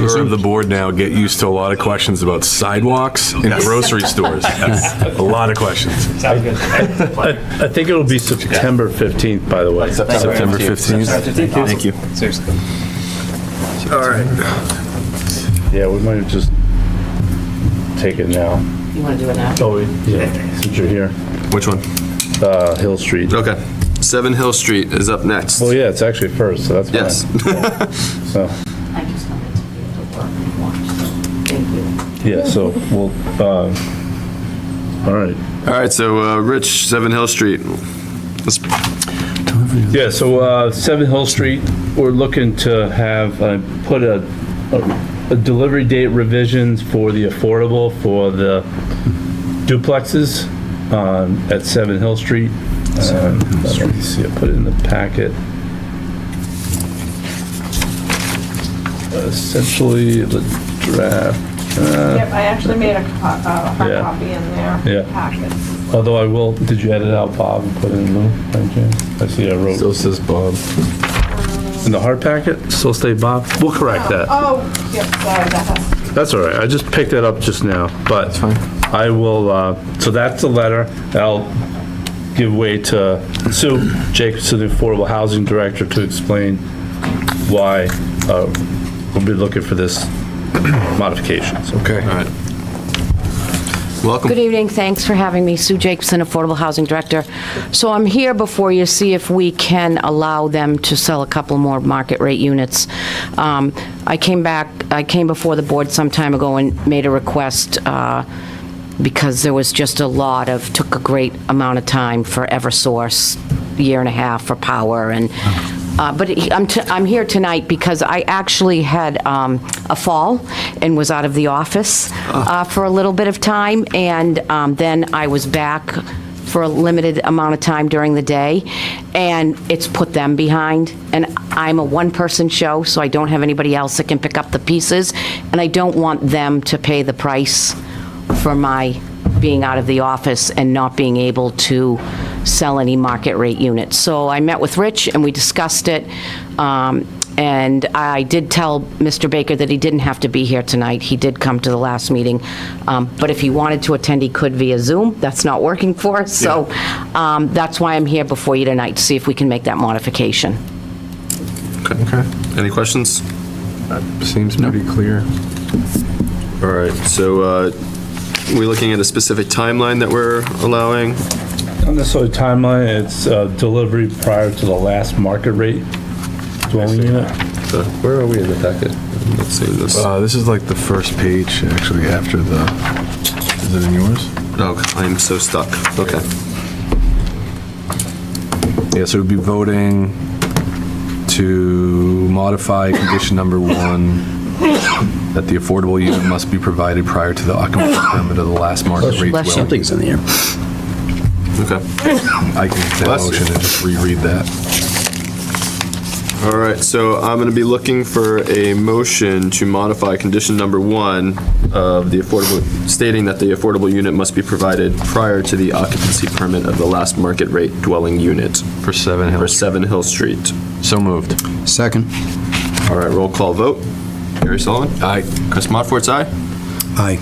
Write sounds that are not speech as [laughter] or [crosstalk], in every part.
member of the board now get used to a lot of questions about sidewalks and grocery [laughs] stores. A lot of questions. Sounds good. I I think it'll be September 15th, by the way. September 15th. Thank you. Seriously. Yeah, we might just take it now. You want to do it now? Oh, yeah, since you're here. Which one? Uh, Hill Street. Okay. Seven Hill Street is up next. Well, yeah, it's actually first, so that's fine. Yes. So, I just wanted to be able to work and watch, so thank you. yeah, so we'll, uh, all right. All right, so, uh, Rich, Seven Hill Street. Let's- Yeah, so uh, Seven Hill Street, we're looking to have, uh, put a, a- a delivery date revisions for the affordable, for the duplexes um, at Seven Hill Street. Um, I don't see, I put it in the packet. Essentially, the draft, Yep, I actually made a co- uh, hard Yeah. copy in there. Yeah. Packet. although I will, did you edit out Bob and put it in Lou? by chance? I see I wrote, says Bob. in the hard packet, still stay Bob? We'll correct that. Oh, yep, sorry, that has to That's all right, I just picked that up just now, but I will, uh, so that's the letter, I'll give way to Sue Jacobson, the Affordable Housing Director, to explain why uh, we'll be looking for this modification, so. Okay. All right. Welcome. Good evening, thanks for having me. Sue Jacobson, Affordable Housing Director. So I'm here before you, see if we can allow them to sell a couple more market rate units. Um, I came back, I came before the board some time ago and made a request uh, because there was just a lot of, took a great amount of time for Eversource, year and a half for power and, uh, but he- I'm, t- I'm here tonight because I actually had um, a fall and was out of the office uh, for a little bit of time, and um, then I was back for a limited amount of time during the day, and it's put them behind. And I'm a one-person show, so I don't have anybody else that can pick up the pieces, and I don't want them to pay the price for my being out of the office and not being able to sell any market rate units. So I met with Rich and we discussed it. um, And I did tell Mr. Baker that he didn't have to be here tonight. He did come to the last meeting. Um, But if he wanted to attend, he could via Zoom. That's not working [laughs] for us. So um, that's why I'm here before you tonight, to see if we can make that modification. Okay. Any questions? Seems pretty clear. All right, so, uh, we looking at a specific timeline that we're allowing? Not necessarily timeline, it's uh, delivery prior to the last market rate dwelling unit. So, Where are we in the packet? Let's see this. Uh, This is like the first page, actually, after the, is it in yours? Oh, I'm so stuck. Okay. Yeah, so we'd be voting to modify condition number one, that the affordable unit must be provided prior to the occupancy permit of the last market rate Bless you. dwelling. Something's in the air. Okay. I can make that Bless you. motion and just reread that. All right, so I'm going to be looking for a motion to modify condition number one of the affordable, stating that the affordable unit must be provided prior to the occupancy permit of the last market rate dwelling unit For seven for Hills. Seven Hill Street. So moved. Second. All right, roll call vote. Gary Sullivan? Aye. Chris Modfort's aye? Aye.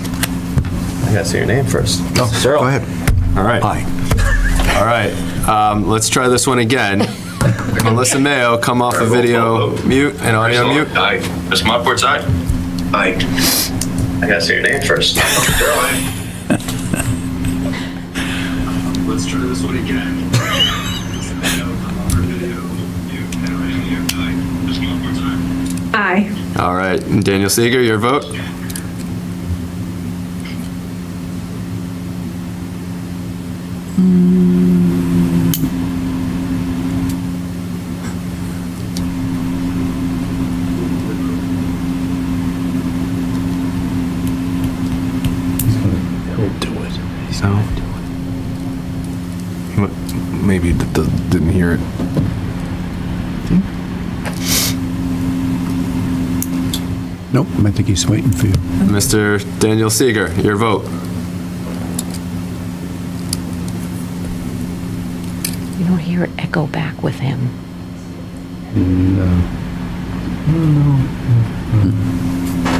I gotta say your name first. Go ahead. All right. Aye. All right, um, let's try this [laughs] one again. Melissa Mayo, come off of video mute and audio mute. Aye. Chris Mopworth's aye. Aye. I gotta say your name first. Let's try this one again. Aye. All right, and Daniel Seeger, your vote? So. M- Maybe it d- didn't hear it. Nope, I think he's waiting for you. Mr. Daniel Seeger, your vote? You don't hear it echo back with him.